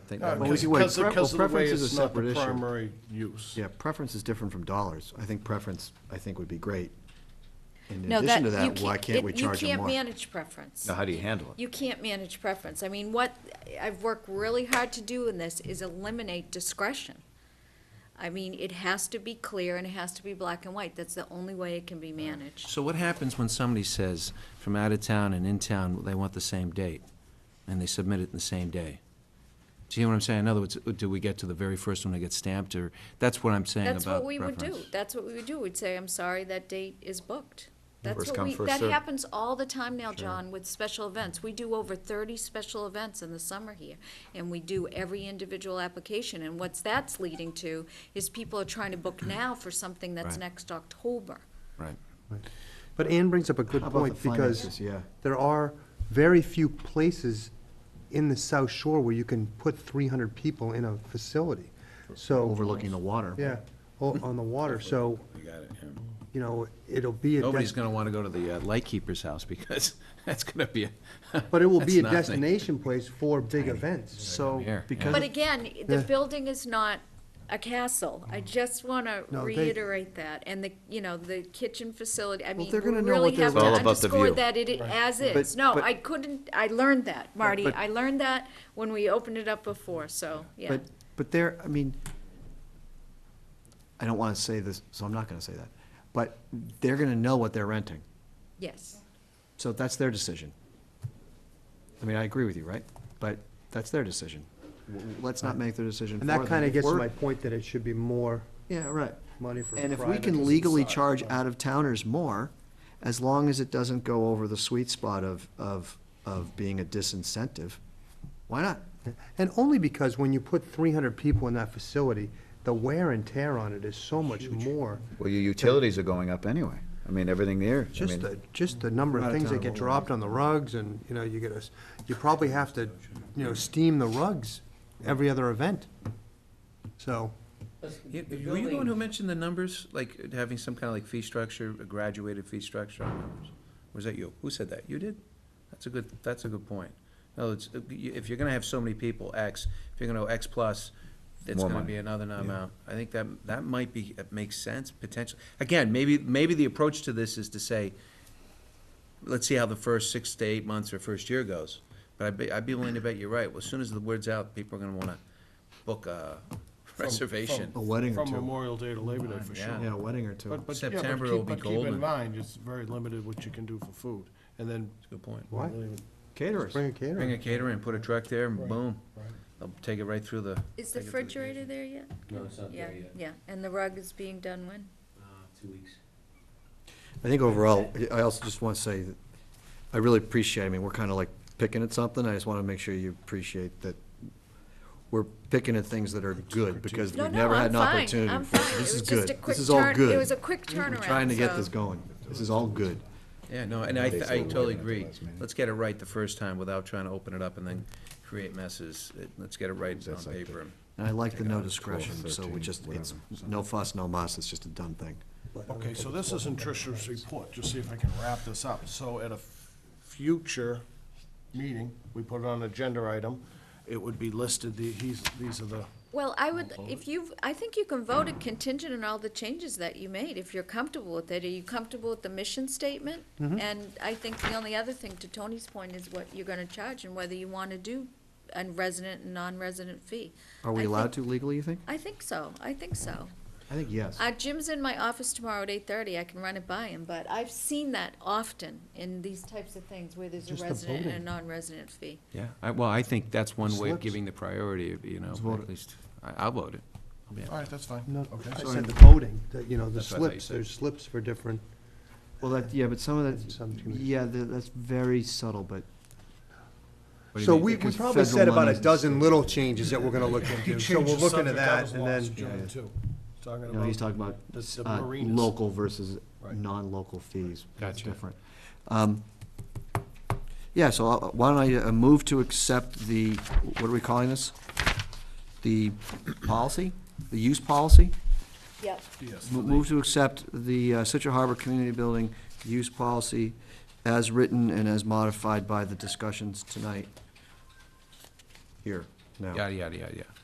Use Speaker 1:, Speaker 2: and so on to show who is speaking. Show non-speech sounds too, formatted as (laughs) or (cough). Speaker 1: Uh,
Speaker 2: think.
Speaker 3: No,
Speaker 2: that
Speaker 4: we
Speaker 2: might-
Speaker 3: Uh, Because
Speaker 4: could- wait,
Speaker 3: because of-
Speaker 4: pre-
Speaker 3: because of
Speaker 4: well,
Speaker 3: the way
Speaker 4: preference is a
Speaker 3: it's not the
Speaker 4: separate issue.
Speaker 3: primary use.
Speaker 4: Yeah, preference is different from dollars. I think preference, I think would be great. In
Speaker 5: No,
Speaker 4: addition to
Speaker 5: you
Speaker 4: that, why can't
Speaker 5: it-
Speaker 4: we charge them more?
Speaker 5: You can't manage preference.
Speaker 2: Now, how do you handle it?
Speaker 5: You can't manage preference. I mean, what I've worked really hard to do in this is eliminate discretion. I mean, it has to be clear and it has to be black and white. That's the only way it can be managed.
Speaker 6: So what happens when somebody says from out of town and in town, they want the same date, and they submit it in the same day? Do you hear what I'm saying? In other words, do we get to the very first one that gets stamped, or, that's what I'm saying about
Speaker 5: That's
Speaker 6: preference.
Speaker 5: what we would do. That's what we would do. We'd say, I'm sorry, that date is booked. That's
Speaker 2: First
Speaker 5: what
Speaker 2: come,
Speaker 5: we,
Speaker 2: first
Speaker 5: that
Speaker 2: served.
Speaker 5: happens all the time now, John, with special events. We do over thirty special events in the summer here. And we do every individual application. And what's that's leading to is people are trying to book now for something that's
Speaker 6: Right.
Speaker 5: next October.
Speaker 6: Right.
Speaker 1: But Ann brings up a good
Speaker 4: How about
Speaker 1: point,
Speaker 4: the
Speaker 1: because
Speaker 4: finances? Yeah.
Speaker 1: there are very few places in the South Shore where you can put three hundred people in a facility, so,
Speaker 4: Overlooking the water.
Speaker 1: yeah, o- on the water, so,
Speaker 3: You got it, yeah.
Speaker 1: you know, it'll be a,
Speaker 6: Nobody's
Speaker 1: des-
Speaker 6: gonna wanna go to the uh, lightkeeper's house, because (laughs) that's gonna be a.
Speaker 1: but it will be a
Speaker 6: that's nothing.
Speaker 1: destination place for big events, so,
Speaker 6: Here, yeah.
Speaker 4: because
Speaker 5: But again, the
Speaker 1: Yeah. Mm.
Speaker 5: building is not a castle. I just want to
Speaker 1: No, they-
Speaker 5: reiterate that. And the, you know, the kitchen facility, I mean, we
Speaker 1: they're gonna know
Speaker 5: really
Speaker 1: what they're
Speaker 5: have to
Speaker 2: It's all about the
Speaker 5: underscore
Speaker 2: view.
Speaker 5: that it i- as is.
Speaker 1: But-
Speaker 5: No,
Speaker 1: but-
Speaker 5: I couldn't, I learned that, Marty.
Speaker 1: but-
Speaker 5: I learned that when we opened it up before, so, yeah.
Speaker 4: But, but there, I mean, I don't want to say this, so I'm not going to say that. But they're going to know what they're renting.
Speaker 5: Yes,
Speaker 4: So that's their decision. I mean, I agree with you, right? But that's their decision. W- w- Let's not make their decision for
Speaker 1: and
Speaker 4: them.
Speaker 1: that kinda
Speaker 4: If
Speaker 1: gets to
Speaker 4: we're-
Speaker 1: my point that it should be more
Speaker 4: Yeah, right.
Speaker 1: money for
Speaker 4: And if we
Speaker 1: private
Speaker 4: can
Speaker 1: to
Speaker 4: legally
Speaker 1: decide.
Speaker 4: charge out-of-towners more, as long as it doesn't go over the sweet spot of, of, of being a disincentive, why not?
Speaker 1: And only because when you put three hundred people in that facility, the wear and tear on it is so much more.
Speaker 2: Well, your utilities are going up anyway. I mean, everything there, I
Speaker 1: Just the,
Speaker 2: mean,
Speaker 1: just the number
Speaker 4: Out
Speaker 1: of
Speaker 4: of
Speaker 1: things that
Speaker 4: town.
Speaker 1: get dropped on the rugs and, you know, you get a, you probably have to, you know, steam the rugs every other event. So,
Speaker 6: Yeah, Were you the one who mentioned the numbers, like having some kind of like fee structure, a graduated fee structure on numbers? Or Was that you? Who said that? You did? That's a good, that's a good point. No, it's, if you're gonna have so many people, X, if you're gonna go X plus, it's
Speaker 2: More
Speaker 6: gonna
Speaker 2: money.
Speaker 6: be another amount. I think that, that might be, it makes sense potentially. Again, maybe, maybe the approach to this is to say, let's see how the first six to eight months or first year goes. But I'd be, I'd be willing to bet you're right. Well, as soon as the word's out, people are gonna wanna book a
Speaker 3: From-
Speaker 6: reservation.
Speaker 3: from-
Speaker 4: A wedding or
Speaker 3: From
Speaker 4: two.
Speaker 3: Memorial Day to Labor Day, for sure.
Speaker 6: Yeah.
Speaker 4: Yeah, a wedding or two.
Speaker 3: But, but, yeah, but
Speaker 6: September
Speaker 3: keep-
Speaker 6: will be
Speaker 3: but keep
Speaker 6: golden.
Speaker 3: in mind, it's very limited what you can do for food, and then.
Speaker 6: Good point.
Speaker 1: Why?
Speaker 4: Caterers.
Speaker 1: bring a
Speaker 6: Bring
Speaker 1: caterer.
Speaker 6: a caterer and put a truck there, and
Speaker 3: Right,
Speaker 6: boom,
Speaker 3: right.
Speaker 6: they'll take it right through the.
Speaker 5: is the
Speaker 6: take it to the
Speaker 5: refrigerator there yet?
Speaker 6: No, it's not
Speaker 5: Yeah, yeah, and the rug is being done when?
Speaker 6: Two weeks.
Speaker 4: I think overall, I also just want to say, that I really appreciate, I mean, we're kind of like picking at something, I just want to make sure you appreciate that we're picking at things that are good, because
Speaker 5: No,
Speaker 4: we've
Speaker 5: no,
Speaker 4: never had
Speaker 5: I'm
Speaker 4: an
Speaker 5: fine,
Speaker 4: opportunity
Speaker 5: I'm
Speaker 4: before.
Speaker 5: fine. It
Speaker 4: This
Speaker 5: was
Speaker 4: is
Speaker 5: just a
Speaker 4: good,
Speaker 5: quick
Speaker 4: this is all
Speaker 5: turn,
Speaker 4: good.
Speaker 5: it was a quick
Speaker 4: We're
Speaker 5: turnaround,
Speaker 4: trying to get
Speaker 5: so-
Speaker 4: this going, this is all good.
Speaker 6: Yeah, no, and I, th- I
Speaker 2: Basically,
Speaker 6: totally
Speaker 2: we're gonna
Speaker 6: agree.
Speaker 2: do last minute.
Speaker 6: Let's get it right the first time without trying to open it up and then create messes. It- Let's get it right on
Speaker 2: That's like
Speaker 6: paper.
Speaker 4: And I like the no
Speaker 2: Twelve,
Speaker 4: discretion, so we
Speaker 2: 13,
Speaker 4: just, it's
Speaker 2: whatever.
Speaker 4: no fuss, no muss, it's just a done thing.
Speaker 3: Okay, so this isn't Trish's report, just see if I can wrap this up. So at a f- future meeting, we put it on agenda item, it would be listed, the, he's, these are the,
Speaker 5: Well, I would, if you've, I think you can vote it contingent on all the changes that you made, if you're comfortable with it. Are you comfortable with the mission statement?
Speaker 4: Mm-hmm.
Speaker 5: And I think the only other thing, to Tony's point, is what you're gonna charge and whether you wanna do a resident and non-resident fee.
Speaker 4: Are we
Speaker 5: I
Speaker 4: allowed to
Speaker 5: think-
Speaker 4: legally, you think?
Speaker 5: I think so, I think so.
Speaker 4: I think yes.
Speaker 5: Uh, Jim's in my office tomorrow at eight-thirty, I can run it by him, but I've seen that often in these types of things where there's a
Speaker 1: Just the
Speaker 5: resident and a
Speaker 1: voting.
Speaker 5: non-resident fee.
Speaker 6: Yeah, I, well, I think that's one way of
Speaker 1: Slips.
Speaker 6: giving the priority, you know,
Speaker 4: vote
Speaker 6: at
Speaker 4: it.
Speaker 6: least, I, I'll vote it.
Speaker 3: all right, that's fine.
Speaker 1: No,
Speaker 3: Okay.
Speaker 1: I said the voting, that, you know, the
Speaker 6: That's what I thought you
Speaker 1: slips,
Speaker 6: said.
Speaker 1: there's slips for different,
Speaker 4: Well, that, yeah, but some of
Speaker 1: Some
Speaker 4: that,
Speaker 1: communities.
Speaker 4: yeah, tha- that's very subtle, but.
Speaker 1: so we, we
Speaker 4: Because
Speaker 1: probably
Speaker 4: federal
Speaker 1: said about
Speaker 4: money
Speaker 1: a
Speaker 4: is-
Speaker 1: dozen little changes that we're gonna look into, so we'll look into that and then.
Speaker 3: Talking
Speaker 4: No, he's
Speaker 3: about
Speaker 4: talking about
Speaker 3: the the
Speaker 4: uh,
Speaker 3: marinas.
Speaker 4: local versus
Speaker 3: Right.
Speaker 4: non-local fees. That's
Speaker 6: Gotcha.
Speaker 4: different. Um, Yeah, so I'll- why don't I uh, move to accept the, what are we calling this? The policy, the use policy?
Speaker 5: Yep.
Speaker 3: Yes.
Speaker 4: Mo- Move to accept the uh, Situate Harbor Community Building use policy as written and as modified by the discussions tonight here. now.
Speaker 6: yada, yada, yada, yada.